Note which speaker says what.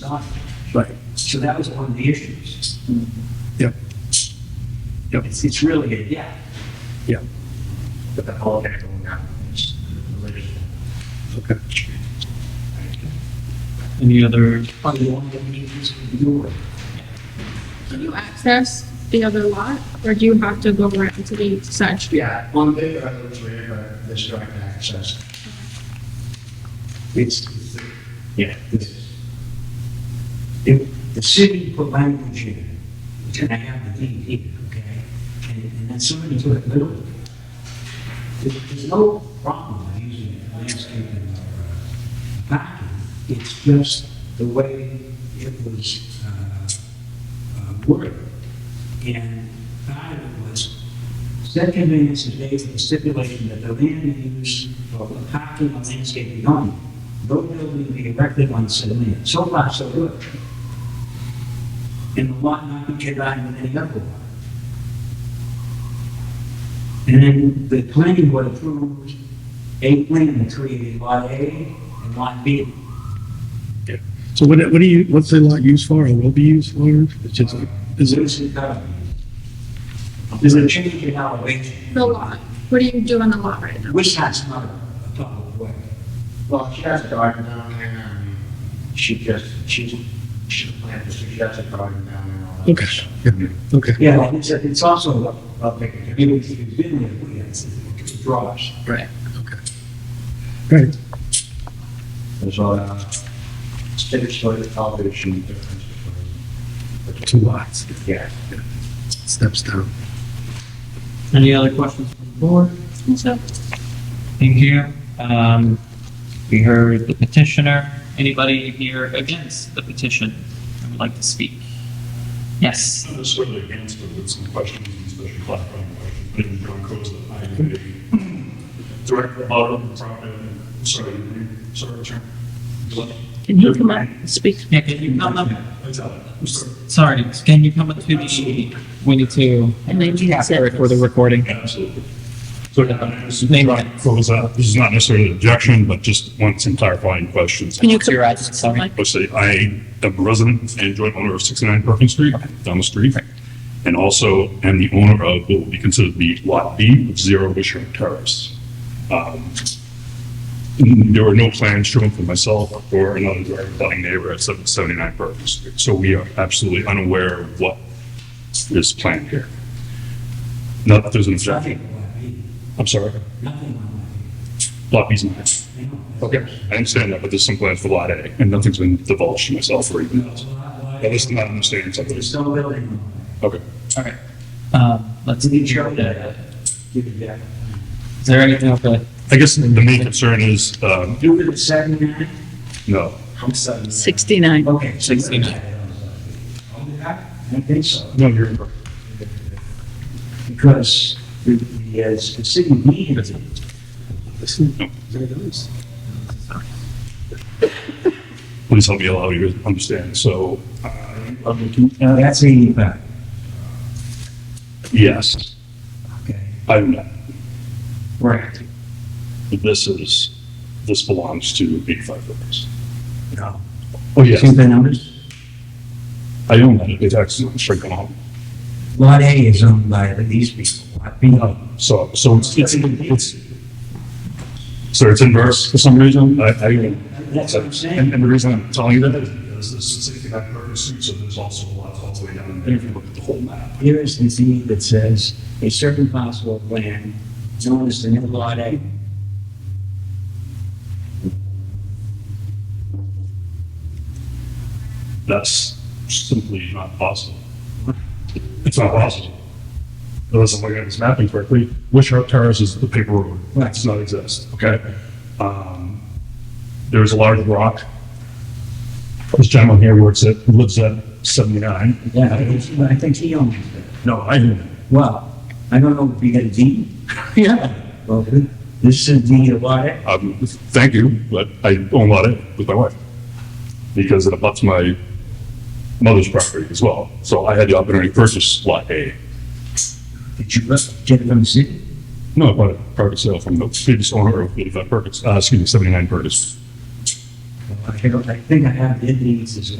Speaker 1: not.
Speaker 2: Right.
Speaker 1: So that was one of the issues.
Speaker 2: Yep. Yep.
Speaker 1: It's, it's really a, yeah.
Speaker 2: Yeah.
Speaker 1: But the whole thing going on is religious.
Speaker 2: Okay.
Speaker 3: Any other,
Speaker 1: On the one that we need is the door.
Speaker 4: Can you access the other lot, or do you have to go around to the side street?
Speaker 5: Yeah, on paper, it looks weird, but this direct access.
Speaker 1: It's, yeah. If the city put language in, which I have the DEP, okay? And, and then somebody took it literally. There- There's no problem with using it for landscaping or uh, parking. It's just the way it was, uh, uh, worded. And part of it was, said conveyance is made with the stipulation that the land used for parking or landscaping only. No building be erected on said land. So far, so good. And the lot not be combined with any other lot. And then the planning board approved a plan that created lot A and lot B.
Speaker 2: So what, what do you, what's the lot used for or will be used for? It's just, is it,
Speaker 1: There's a- There's a change in elevation,
Speaker 4: The lot, what do you do on the lot right now?
Speaker 1: which that's not a public way.
Speaker 5: Well, she has a garden down there, and she just, she's, she planted, she has a garden down there. and all that
Speaker 2: Okay.
Speaker 5: stuff.
Speaker 2: okay,
Speaker 1: Yeah, and it's, it's also, a- a big- if you've been there, we had some draws.
Speaker 2: right.
Speaker 5: There's a, uh, state soil elevation difference.
Speaker 2: Two lots,
Speaker 5: Yeah.
Speaker 2: steps down.
Speaker 3: any other questions from the board?
Speaker 4: So,
Speaker 3: Thank you. Um, we heard the petitioner. Anybody here against the petition that would like to speak? Yes,
Speaker 6: Not necessarily against, but with some questions, and especially clarifying questions. My name is John Costa, I am a director of audit and property, sorry, your name? sorry, attorney.
Speaker 7: Can you come up and speak?
Speaker 3: yeah, can you, no, no,
Speaker 6: I tell it, I'm sorry.
Speaker 3: sorry, can you come up to the, we need to
Speaker 7: And then you
Speaker 3: capture it
Speaker 7: said-
Speaker 3: for the recording.
Speaker 6: Absolutely. So, yeah, I mean, this is
Speaker 3: Name
Speaker 6: John
Speaker 3: it.
Speaker 6: Costa. This is not necessarily an objection, but just want some clarifying questions.
Speaker 7: Can you
Speaker 3: What's
Speaker 7: come
Speaker 3: your
Speaker 7: up?
Speaker 3: address? Sorry.
Speaker 7: Like,
Speaker 6: Let's say I am a resident and joint owner of 69 Perkins Street, down the street. And also am the owner of what will be considered to be Lot B of Zero Wisher Terrace. Um, There are no plans shown for myself or another direct abutting neighbor at 779 Perkins Street. So we are absolutely unaware of what is planned here. Not that there's an objection.
Speaker 1: Nothing on lot B,
Speaker 6: I'm sorry,
Speaker 1: nothing on
Speaker 6: Lot B's not.
Speaker 1: lot B. you know.
Speaker 6: I understand that, but there's some plans for Lot A and nothing's been divulged to myself or even else.
Speaker 1: Lot- lot-
Speaker 6: At least not understanding something.
Speaker 1: There's no building on it.
Speaker 6: Okay.
Speaker 3: All right. Um, let's,
Speaker 1: Did you show
Speaker 3: is
Speaker 1: that? Give it back.
Speaker 3: there anything else? that-
Speaker 6: I guess the main concern is, um,
Speaker 1: You were the seventy-nine?
Speaker 6: no,
Speaker 1: I'm seventy-nine.
Speaker 7: 69.
Speaker 1: Okay. so you were
Speaker 3: 69.
Speaker 1: at it on lot B. I don't think so,
Speaker 6: no, you're,
Speaker 1: because the, the, uh, the city needed it.
Speaker 2: This is-
Speaker 6: No.
Speaker 2: There goes.
Speaker 6: please help me allow you to understand. So, uh,
Speaker 1: No, that's eighty-five.
Speaker 6: yes,
Speaker 1: Okay.
Speaker 6: I'm not.
Speaker 1: Right.
Speaker 6: This is, this belongs to 85 Rivers.
Speaker 1: No.
Speaker 6: Oh,
Speaker 1: See
Speaker 6: yes,
Speaker 1: the numbers?
Speaker 6: I own that. It's actually stricken off.
Speaker 1: Lot A is owned by these people, lot B. oh,
Speaker 6: No, so, so it's, it's, it's, so it's inverse for some reason. I, I,
Speaker 1: That's what I'm
Speaker 6: And,
Speaker 1: saying.
Speaker 6: and the reason I'm telling you that is because this is sixty-nine Burger Street, so there's also a lot all the way down in there. If you look at the whole map,
Speaker 1: Here is the deed that says a certain parcel of land known as the new lot A.
Speaker 6: that's simply not possible. It's not possible. Unless I'm looking at this mapping correctly, Wishart Terrace is the paper road.
Speaker 1: Right.
Speaker 6: It does not exist, okay? Um, there's a large rock. This gentleman here works at, lives at seventy-nine.
Speaker 1: Yeah, I think- I think he owns it.
Speaker 6: No, I didn't.
Speaker 1: Well, I don't know if you got a deed.
Speaker 7: Yeah.
Speaker 1: Well, this is a deed of lot A.
Speaker 6: Um, thank you, but I own a lot of it with my wife. Because it abuts my mother's property as well. So I had the opportunity to purchase lot A.
Speaker 1: Did you get it from the city?
Speaker 6: No, I bought it private sale from the previous owner of eighty-five Perkins, uh, excuse me, seventy-nine Perkins.
Speaker 1: I don't- I think I have the deeds as well.